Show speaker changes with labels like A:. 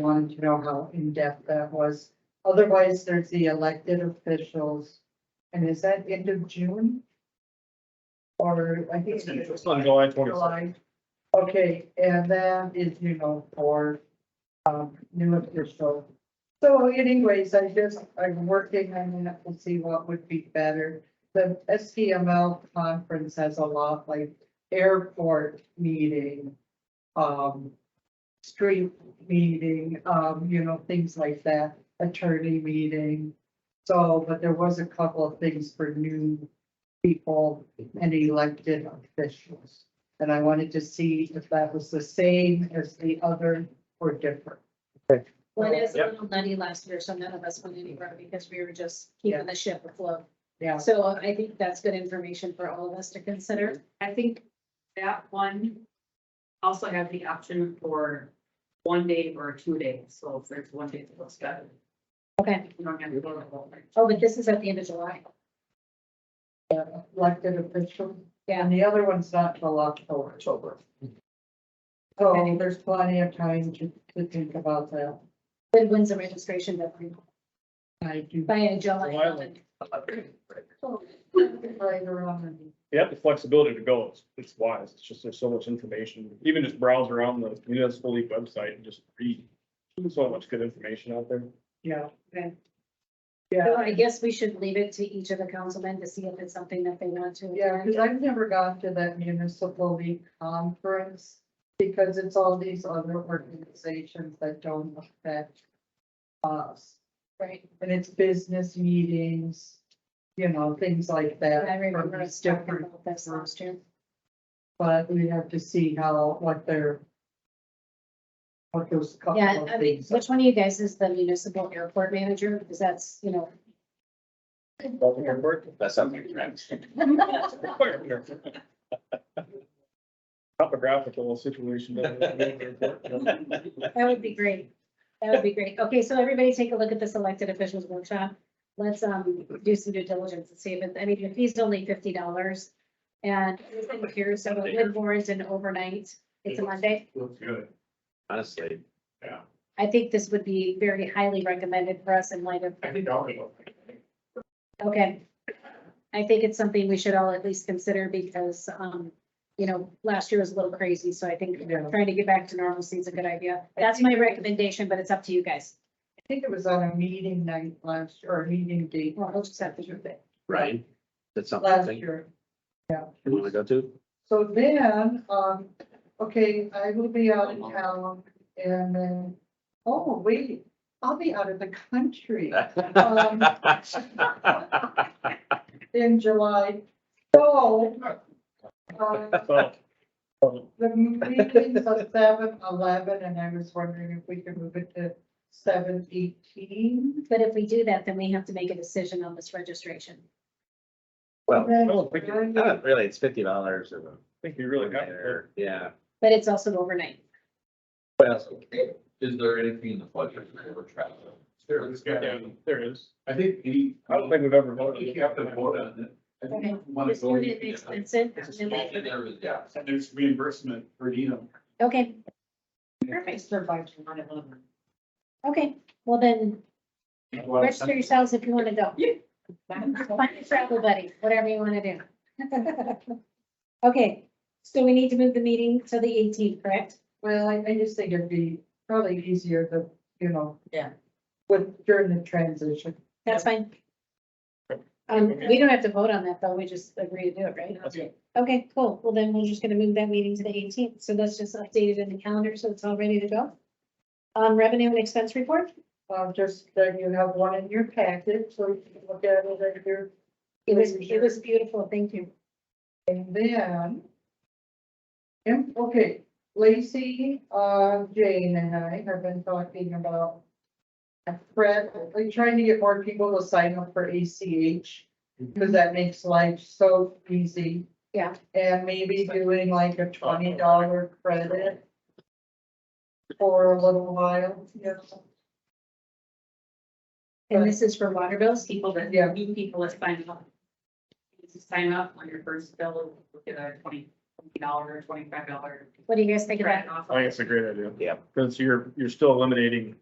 A: wanted to know how in-depth that was. Otherwise, there's the elected officials. And is that end of June? Or I think.
B: It's on July twenty.
A: July. Okay, and that is, you know, for, um, new official. So anyways, I just, I'm working on that to see what would be better. The STML conference has a lot like airport meeting, um, street meeting, um, you know, things like that, attorney meeting. So, but there was a couple of things for new people and elected officials. And I wanted to see if that was the same as the other or different.
C: Well, it is a
B: Yep.
C: little nutty last year, so none of us went anywhere because we were just keeping the ship afloat.
A: Yeah,
C: So I think that's good information for all of us to consider.
D: I think that one also have the option for one day or two days, so if there's one day to go study.
C: Okay.
D: You don't have to go to the whole night.
C: Oh, but this is at the end of July.
A: elected official.
C: Yeah.
A: And the other one's not till October. October. So there's plenty of time to, to think about that.
C: Then when's the registration deadline?
A: I do.
C: By July.
B: July.
C: 11th.
A: Later on.
B: You have the flexibility to go. It's, it's wise. It's just, there's so much information. Even just browse around the municipal league website and just read. There's So much good information out there.
A: Yeah.
C: Okay. So
A: Yeah,
C: I guess we should leave it to each of the councilmen to see if it's something that they want to.
A: yeah, because I've never gone to that municipal league conference because it's all these other organizations that don't affect us.
C: Right.
A: And it's business meetings, you know, things like that.
C: I remember
A: It's
C: us talking
A: different,
C: about this last year.
A: but we have to see how, what their what those couple
C: Yeah,
A: of
C: I mean,
A: things. are.
C: which one of you guys is the municipal airport manager? Because that's, you know,
B: Baltimore Airport.
E: That's something, right?
B: Topographical situation. down there at Baltimore Airport.
C: That would be great. That would be great. Okay, so everybody take a look at this elected officials workshop. Let's um do some due diligence and see if, it- I mean, the fee's only fifty dollars. And it's in here, so it would warrant an overnight. It's a Monday.
B: Looks good.
E: Honestly,
C: I think this would be very highly recommended for us in light of,
B: I think I'll go.
C: okay. I think it's something we should all at least consider because um, you know, last year was a little crazy, so I think
A: Yeah.
C: trying to get back to normalcy is a good idea.
A: I
C: That's
A: think-
C: my recommendation, but it's up to you guys.
A: I think it was on a meeting night last, or a meeting date.
C: Well, I'll just have to do that.
E: Ryan, that's
A: Last
E: something you
A: year.
E: want to go to?
A: So then, um, okay, I will be out of town and then, oh, wait, I'll be out of the country Um, in July. So, um,
B: So, um,
A: the meeting's at seven eleven and I was wondering if we could move it to seven eighteen.
C: But if we do that, then we have to make a decision on this registration.
E: Well,
B: I don't think- I
E: not really, it's fifty dollars or.
B: think we really got there.
E: Yeah,
C: But it's also overnight.
E: well,
F: Is there anything in the budget for travel?
B: There is, yeah, there is.
F: I think any.
B: I don't think we've ever voted.
F: You have to vote on it. I think you wanna
C: Just
F: go-
C: do it expensive.
F: It's a
C: and
F: small
C: then
F: thing,
C: we-
F: there is, Yeah, and there's reimbursement for Needham.
C: Okay. Perfect.
A: Survived one eleven.
C: Okay, well then,
F: Well,
C: register yourselves if you want to go. Find your travel buddy, whatever you want to do. Okay, so we need to move the meeting to the eighteenth, correct?
A: Well, I, I just think it'd be probably easier to, you know.
D: Yeah.
A: With, during the transition.
C: That's fine. Um, we don't have to vote on that, though. We just agree to do it, right? Okay, cool. Well, then we're just gonna move that meeting to the eighteenth, so that's just updated in the calendar, so it's all ready to go. Um, revenue and expense report,
A: Um, just that you have one in your packet, so you can look at it at your,
C: it was, it was beautiful, thank you.
A: and then. And, okay, Lacey, uh, Jane and I have been talking about. Fred, we're trying to get more people to sign up for ACH, because that makes life so easy.
C: Yeah.
A: And maybe doing like a twenty dollar credit. For a little while, yeah.
C: And this is for water bills,
D: People that,
A: Yeah.
D: new people that sign up. You Sign up on your first bill, look at our twenty dollar, twenty-five dollar.
C: What do you guys think of that?
B: I think it's a great idea.
E: Yeah.
B: Cause you're, you're still eliminating